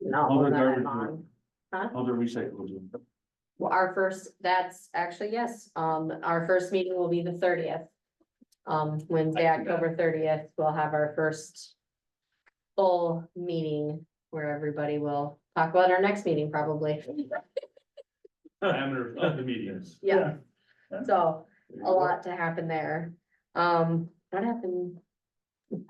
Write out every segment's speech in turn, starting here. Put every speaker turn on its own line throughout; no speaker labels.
not
Other
one that I'm
garbage
on.
Other recycling.
Well, our first, that's actually, yes, um, our first meeting will be the thirtieth. Um, Wednesday,
I see that.
October thirtieth, we'll have our first. Full meeting where everybody will talk about our next meeting probably,
Parameter of the medians.
yeah, so a lot to happen there. Um, what happened? I'm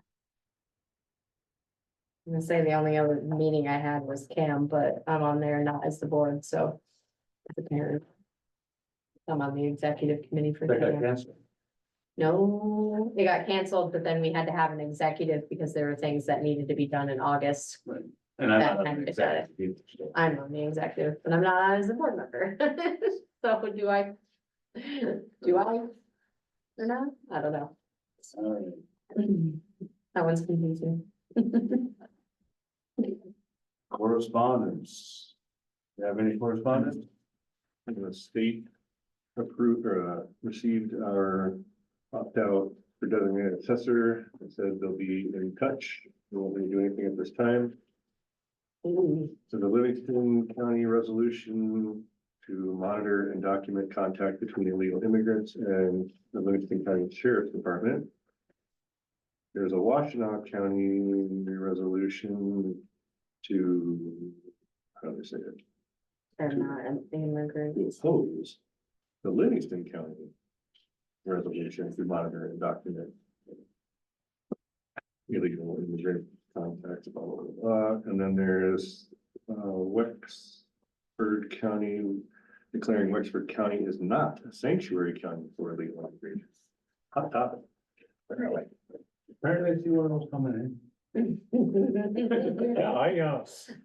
gonna say the only other meeting I had was Cam, but I'm on there not as the board, so. as a parent. I'm on the executive committee for.
That
Cam.
got canceled.
No, it got canceled, but then we had to have an executive because there were things that needed to be done in August.
And I'm
That
not
kind
an
of
executive either, so.
I'm on the executive, but I'm not as a board member. So do I? Do I? Or not? I don't know. That one's confusing.
Correspondence. You have any correspondence?
The state approved or uh, received our opt-out for designated assessor. It says they'll be in touch. They won't really do anything at this time.
Ooh,
So the Livingston County resolution to monitor and document contact between illegal immigrants and the Livingston County Sheriff's Department. There's a Washtenaw County resolution to, how do I say it?
They're not in the group.
to oppose the Livingston County resolution to monitor and document illegal immigrant contacts, blah, blah, blah, blah. and then there's, uh, Wexford County declaring Wexford County is not a sanctuary county for illegal immigrants. Hot topic. Apparently.
Apparently I see one of those coming in.
Yeah, I, uh,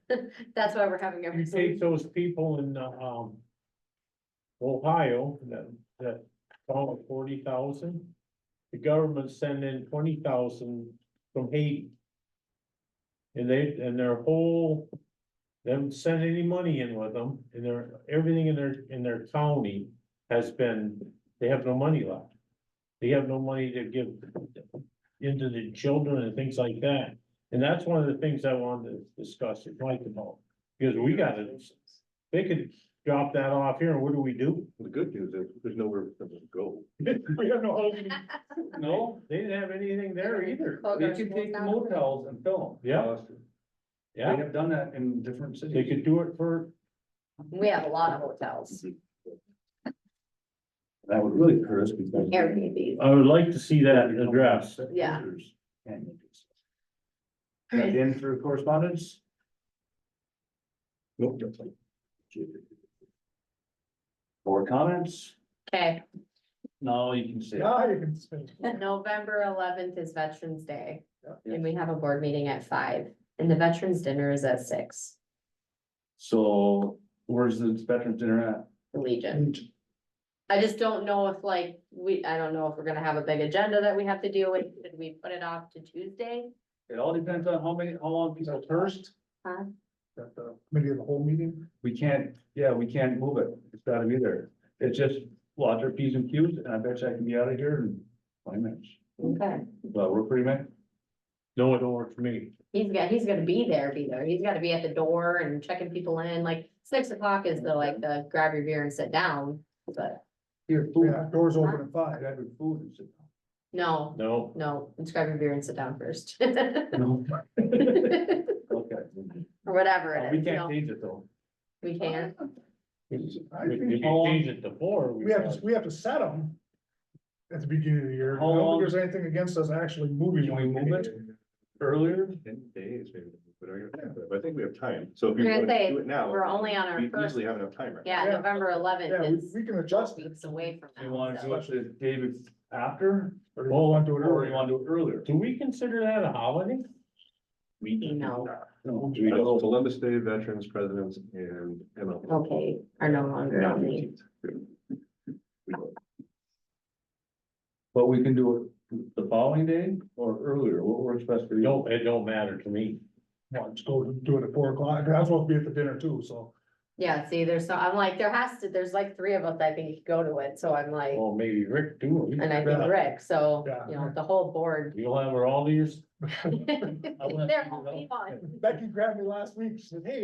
That's why we're having
you
everything.
take those people in, uh, um. Ohio, that, that, call it forty thousand. The government sent in twenty thousand from Haiti. And they, and their whole, they haven't sent any money in with them, and their, everything in their, in their county has been, they have no money left. They have no money to give into the children and things like that. And that's one of the things I wanted to discuss with Mike about, because we gotta, they could drop that off here, and what do we do?
The good news is there's nowhere for them to go.
We have no housing. No, they didn't have anything there either.
Oh,
They can take motels.
Yeah,
They
yeah,
have done that in different
they
cities.
could do it for,
We have a lot of hotels,
That would really hurt us because.
Airbnbs.
I would like to see that addressed.
Yeah.
And- That in for correspondence?
Nope.
Or comments?
Okay,
No, you can say.
November eleventh is Veterans Day. And we have a board meeting at five and the veterans dinner is at six,
So where's the veterans dinner at?
the Legion. I just don't know if like, we, I don't know if we're gonna have a big agenda that we have to deal with. Should we put it off to Tuesday?
It all depends on how many, how long people thirst.
Huh?
Maybe the whole meeting? We can't, yeah, we can't move it. It's gotta be there. It's just lots of P's and Q's and I bet you I can be out of here in twenty minutes.
Okay.
But we're pretty much,
No, it don't work for me.
He's got, he's gonna be there, be there. He's gotta be at the door and checking people in, like six o'clock is the, like, the grab your beer and sit down. But
here,
Yeah,
food,
doors
open
open at five.
grab your food and sit down.
no,
No,
no, let's grab your beer and sit down first.
No,
Or
okay.
whatever it
Oh, we
is, you
can't
know,
change it though.
we can.
I
If you
think
change it to four, we
we have, to
got
we have to set them at the beginning of the year. I
How
don't
long-
think there's anything against us actually moving.
Can we
one
move it?
meeting.
Earlier,
Ten days maybe, but I but I think we have time. So if
I'm
you
gonna
want to
say
do it now.
We're only on our
We
first,
easily have enough time, right?
yeah,
Yeah.
November
Yeah,
eleventh
we,
is.
we can adjust it.
Weeks away from
you wanna
now.
do
so-
it the day bef- after?
Or you want to do it
Or you
earlier.
wanna do it earlier?
Do we consider that a holiday?
We
No.
No.
We know Columbus Day, Veterans, Presidents, and MLK.
Okay, are no longer on the,
But we can do it the following day or earlier, what works best for you?
No, it don't matter to me.
Well, Let's go do it at four o'clock. I was supposed to be at the dinner too, so.
yeah, see, there's, so, I'm like, there has to, there's like three of us, I think, go to it, so I'm like,
Well, maybe Rick too.
and I think
Yeah.
Rick, so,
Yeah.
you know, the whole board.
You'll have her all these
They're all
you know.
fun.
Becky grabbed me last week. She said, hey,